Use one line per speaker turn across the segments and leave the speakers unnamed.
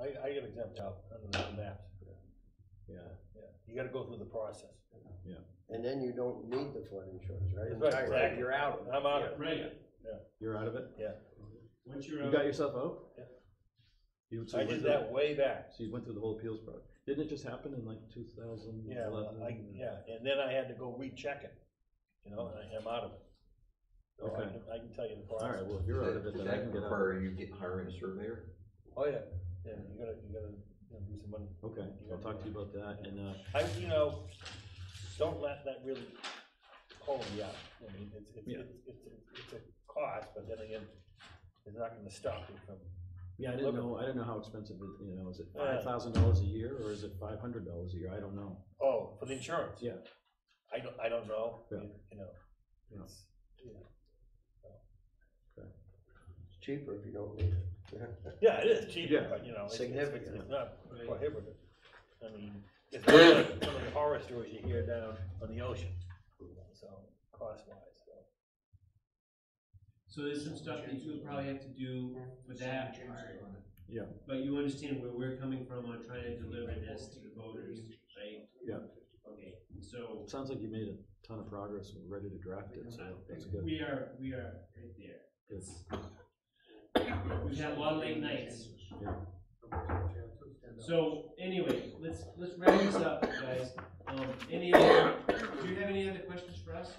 I, I get exempt out under the maps.
yeah,
Yeah, you gotta go through the process.
And then you don't need the flood insurance, right?
That's right,
You're-
exactly.
You're out of it.
I'm out of it.
Right,
you're out of it?
once you're
You
out,
got yourself out?
Yeah.
You, so
I
you went
did
through,
that way back.
so you went through the whole appeals process. Didn't it just happen in like two thousand
Yeah,
eleven?
I, yeah, and then I had to go recheck it, you know, and I am out of it. So I
Okay.
can, I can tell you the
All
process.
right, well, if you're out of it,
Does
then I
that
can get out.
require you getting hiring a surveyor?
Oh, yeah, yeah, you gotta, you gotta, you know, do some money.
Okay, I'll talk to you about that and, uh,
I, you know, don't let that really hold you up. I mean, it's, it's,
Yeah.
it's, it's, a- it's a cost, but then again, it's not gonna stop you from,
yeah, I didn't
Look- Uh,
know, I didn't know how expensive it, you know, is it
Yeah.
five thousand dollars a year or is it five hundred dollars a year? I don't know.
oh, for the insurance.
Yeah.
I don't, I don't know,
Yeah.
you you know,
Yeah.
it's, you know.
It's cheaper if you don't need it.
yeah, it is cheaper,
Yeah.
but you know, it's, it's, it's
Significant.
it's not
Right.
prohibitive. I mean, it's not like some of the horror stories you hear down on the ocean, so, cost wise, so.
so there's some stuff that you'll probably have to do for that part.
Yeah.
But you understand where we're coming from on trying to deliver this to the voters, right?
Yeah.
Okay, so
It sounds like you made a ton of progress and we're ready to draft it, so that's good.
we are, we are right there.
Good.
We've had a lot of late nights.
Yeah.
So anyway, let's, let's wrap this up, guys. Um, any, other- do you have any other questions for us?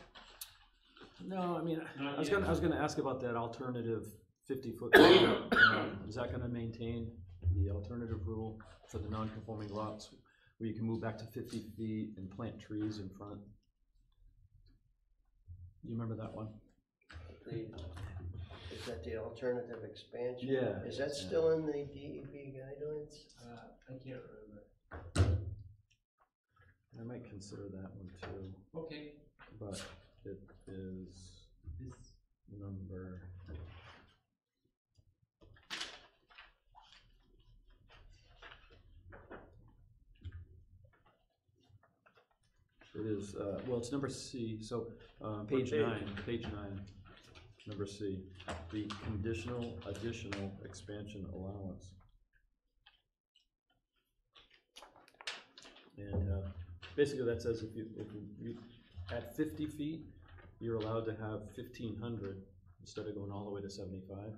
No, I mean, I
Not
was
yet.
gonna, I was gonna ask about that alternative fifty-foot. Um, Is that gonna maintain the alternative rule for the non-conforming lots, where you can move back to fifty feet and plant trees in front? You remember that one?
The- Is that the alternative expansion?
Yeah.
Is that still in the DEP guidelines?
Uh, I can't remember.
I might consider that one too,
Okay,
but it is
this,
number. It is, uh, well, it's number C, so, uh, page
page?
nine, page nine, number C, the conditional additional expansion allowance. And, uh, basically that says if you, if you- you, at fifty feet, you're allowed to have fifteen hundred instead of going all the way to seventy-five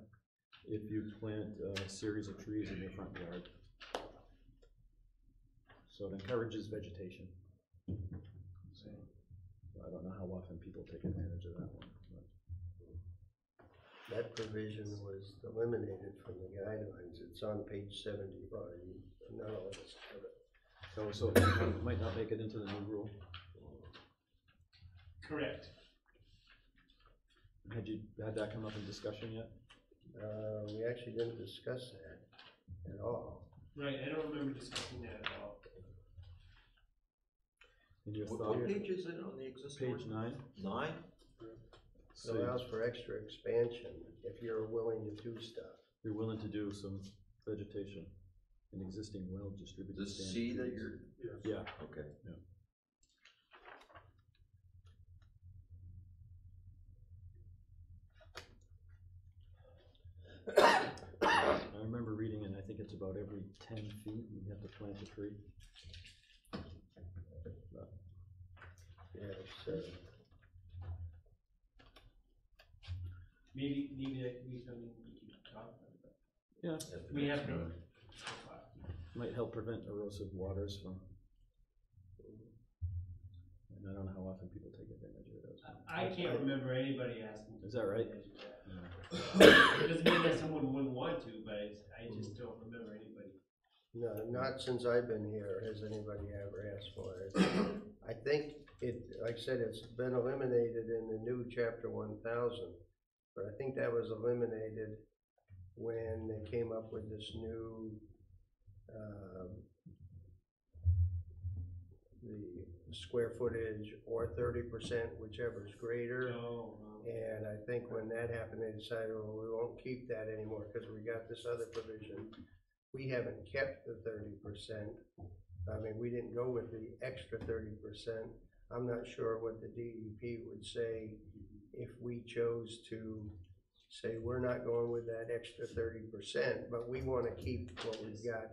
if you plant a series of trees in your front yard. So it encourages vegetation. So, I don't know how often people take advantage of that one, but.
That provision was eliminated from the guidelines. It's on page seventy-five. None of us have it.
So, so it might not make it into the new rule.
correct.
Had you, had that come up in discussion yet?
Uh, we actually didn't discuss that at all.
Right, I don't remember discussing that at all.
In your
What, what
thought,
page is it on the existing?
page nine?
Nine?
It
So
allows for extra expansion if you're willing to do stuff.
you're willing to do some vegetation in existing well-distributed.
The
standard
C that
trees.
you're,
Yeah,
okay.
I remember reading it, I think it's about every ten feet, you have to plant a tree.
Yeah, so
Maybe, maybe that could be something we can talk about.
Yeah,
We have no.
might help prevent erosive waters from. And I don't know how often people take advantage of those.
I can't remember anybody asking.
Is that right?
It doesn't mean that someone wouldn't want to, but it's, I just don't remember anybody.
No, not since I've been here has anybody ever asked for it. I think it, like I said, it's been eliminated in the new chapter one thousand. But I think that was eliminated when they came up with this new, um, the square footage or thirty percent, whichever is greater.
No, no.
And I think when that happened, they decided, well, we won't keep that anymore because we got this other provision. We haven't kept the thirty percent. I mean, we didn't go with the extra thirty percent. I'm not sure what the DEP would say if we chose to say, we're not going with that extra thirty percent, but we want to keep what we've got